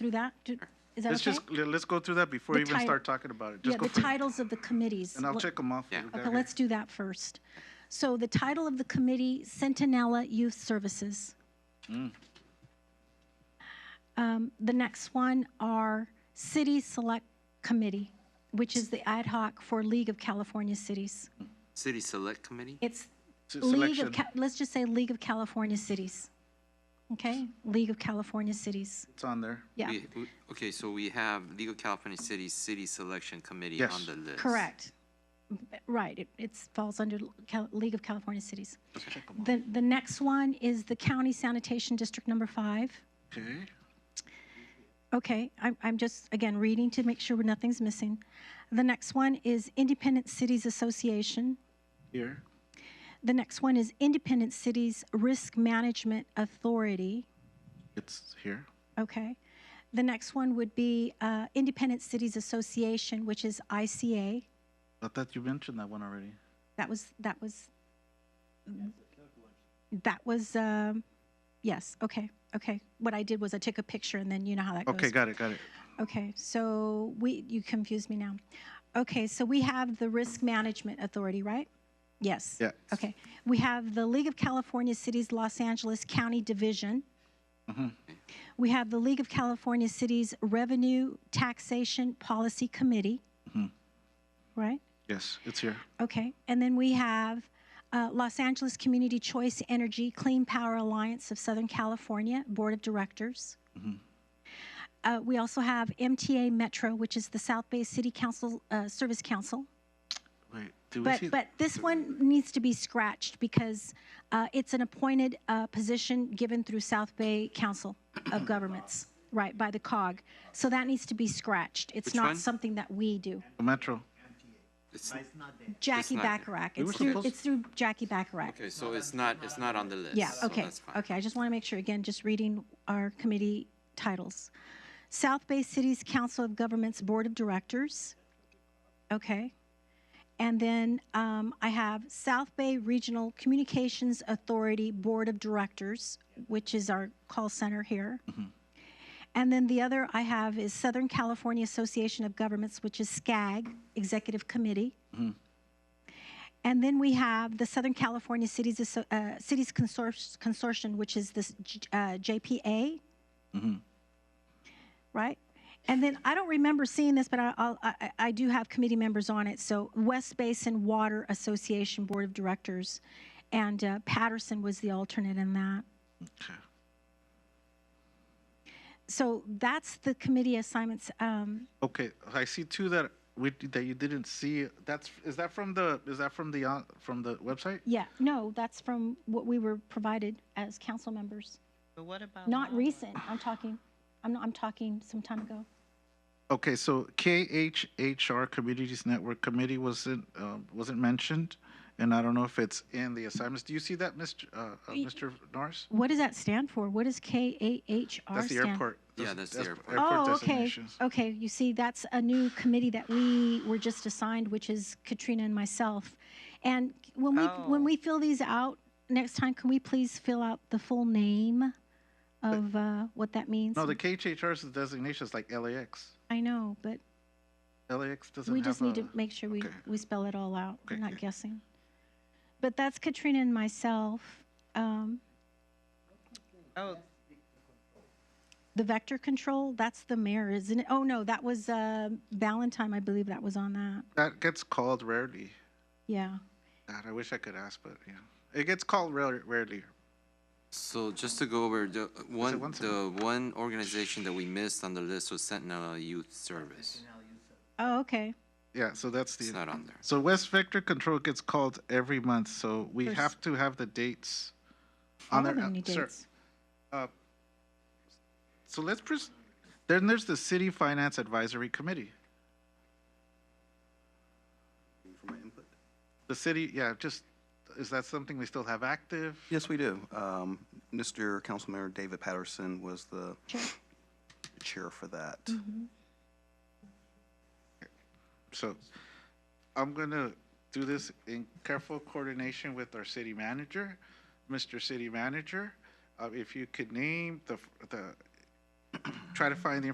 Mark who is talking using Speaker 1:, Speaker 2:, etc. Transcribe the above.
Speaker 1: through that? Do- Is that
Speaker 2: Let's
Speaker 1: okay?
Speaker 2: just, le- let's go through that before
Speaker 1: Uh-huh. The
Speaker 2: we even
Speaker 1: tit-
Speaker 2: start talking about it.
Speaker 1: Yeah,
Speaker 2: Just go
Speaker 1: the
Speaker 2: through,
Speaker 1: titles of the committees.
Speaker 2: and I'll
Speaker 1: Let-
Speaker 2: check them off.
Speaker 3: Yeah.
Speaker 2: We got
Speaker 1: Okay,
Speaker 2: here.
Speaker 1: let's do that first. So the title of the committee, Centinela Youth Services.
Speaker 2: Mm.
Speaker 1: Um, The next one are City Select Committee, which is the ad hoc for League of California Cities.
Speaker 3: City Select Committee?
Speaker 1: It's
Speaker 2: S-
Speaker 1: League
Speaker 2: selection.
Speaker 1: of, Ca- let's just say League of California Cities. Okay? League of California Cities.
Speaker 2: It's on there.
Speaker 1: Yeah,
Speaker 3: We- we- Okay, so we have League of California City City Selection Committee
Speaker 2: Yes.
Speaker 3: on the list.
Speaker 1: correct. Right, it, it falls under Cal- League of California Cities. The, the next one is the County Sanitation District Number Five.
Speaker 2: Okay.
Speaker 1: Okay, I'm, I'm just, again, reading to make sure nothing's missing. The next one is Independent Cities Association.
Speaker 2: Here.
Speaker 1: The next one is Independent Cities Risk Management Authority,
Speaker 2: It's here.
Speaker 1: okay? The next one would be uh, Independent Cities Association, which is ICA.
Speaker 2: I thought you mentioned that one already.
Speaker 1: That was, that was, mm-hmm. that was, um, yes, okay, okay. What I did was I took a picture and then you know how that goes.
Speaker 2: Okay, got it, got it.
Speaker 1: Okay, so we, you confused me now. Okay, so we have the Risk Management Authority, right? Yes.
Speaker 2: Yeah.
Speaker 1: Okay, we have the League of California Cities Los Angeles County Division.
Speaker 2: Mm-hmm.
Speaker 1: We have the League of California Cities Revenue Taxation Policy Committee.
Speaker 2: Mm-hmm.
Speaker 1: Right?
Speaker 2: Yes, it's here.
Speaker 1: Okay, and then we have uh, Los Angeles Community Choice Energy Clean Power Alliance of Southern California Board of Directors.
Speaker 3: Mm-hmm.
Speaker 1: Uh, We also have MTA Metro, which is the South Bay City Council, uh, Service Council.
Speaker 2: Wait, do we
Speaker 1: But,
Speaker 2: see?
Speaker 1: but this one needs to be scratched because uh, it's an appointed uh, position given through South Bay Council of Governments, right, by the COG. So that needs to be scratched. It's
Speaker 3: Which
Speaker 1: not
Speaker 3: one?
Speaker 1: something that we do.
Speaker 2: Metro.
Speaker 3: It's-
Speaker 1: Jackie
Speaker 3: not there.
Speaker 1: Bacharach.
Speaker 2: were
Speaker 1: It's through,
Speaker 2: supposed-
Speaker 1: it's through Jackie Bacharach.
Speaker 3: Okay, so it's not, it's not on the list.
Speaker 1: Yeah,
Speaker 3: so
Speaker 1: okay,
Speaker 3: that's fine.
Speaker 1: okay, I just want to make sure, again, just reading our committee titles. South Bay City's Council of Governments Board of Directors, okay? And then um, I have South Bay Regional Communications Authority Board of Directors, which is our call center here.
Speaker 3: Mm-hmm.
Speaker 1: And then the other I have is Southern California Association of Governments, which is SCAG, Executive Committee. And then we have the Southern California Cities, Asso- uh, Cities Consor- Consortium, which is this J- uh, JPA. Right? And then I don't remember seeing this, but I, I'll, I, I- I do have committee members on it. So West Basin Water Association Board of Directors. And uh, Patterson was the alternate in that.
Speaker 2: Okay.
Speaker 1: So that's the committee assignments. Um,
Speaker 2: Okay, I see two that we, that you didn't see. That's, is that from the, is that from the, uh, from the website?
Speaker 1: yeah, no, that's from what we were provided as council members.
Speaker 4: But what about?
Speaker 1: Not
Speaker 4: Mala?
Speaker 1: recent. I'm talking, I'm, not, I'm talking some time ago.
Speaker 2: Okay, so KHHR Communities Network Committee wasn't, um, wasn't mentioned, and I don't know if it's in the assignments. Do you see that, Mr., uh, uh, Mr. Norris?
Speaker 1: What does that stand for? What does KAHR
Speaker 2: That's the
Speaker 1: stand?
Speaker 2: airport.
Speaker 3: Yeah, that's the airport.
Speaker 1: Oh, okay.
Speaker 2: designations.
Speaker 1: Okay, you see, that's a new committee that we were just assigned, which is Katrina and myself. And when we when
Speaker 4: Oh.
Speaker 1: we fill these out next time, can we please fill out the full name of uh, what that means?
Speaker 2: No, the KHHR's designation is like LAX.
Speaker 1: I know, but
Speaker 2: LAX doesn't
Speaker 1: we
Speaker 2: have
Speaker 1: just need
Speaker 2: a-
Speaker 1: to make sure we
Speaker 2: okay.
Speaker 1: we spell it all out. We're
Speaker 2: Okay,
Speaker 1: not
Speaker 2: okay.
Speaker 1: guessing. But that's Katrina and myself. Um,
Speaker 4: Oh,
Speaker 1: The vector control, that's the mayor, isn't it? Oh, no, that was uh, Valentine, I believe that was on that.
Speaker 2: That gets called rarely.
Speaker 1: Yeah.
Speaker 2: God, I wish I could ask, but yeah, it gets called rare, rarely.
Speaker 3: So just to go over, the one,
Speaker 2: once a
Speaker 3: the one organization that we missed on the list was Sentinel Youth Service.
Speaker 1: Oh, okay.
Speaker 2: Yeah, so that's the.
Speaker 3: It's not on there.
Speaker 2: So West Vector Control gets called every month, so we
Speaker 1: There's-
Speaker 2: have to have the dates
Speaker 1: All of
Speaker 2: on there.
Speaker 1: them
Speaker 2: Uh,
Speaker 1: need
Speaker 2: sir,
Speaker 1: dates.
Speaker 2: So let's pres- then there's the City Finance Advisory Committee. The city, yeah, just is that something we still have active?
Speaker 5: Yes, we do. Um, Mr. Councilmember David Patterson was the chair for that.
Speaker 2: So I'm gonna do this in careful coordination with our city manager. Mr. City Manager, uh, if you could name the, the, try to find the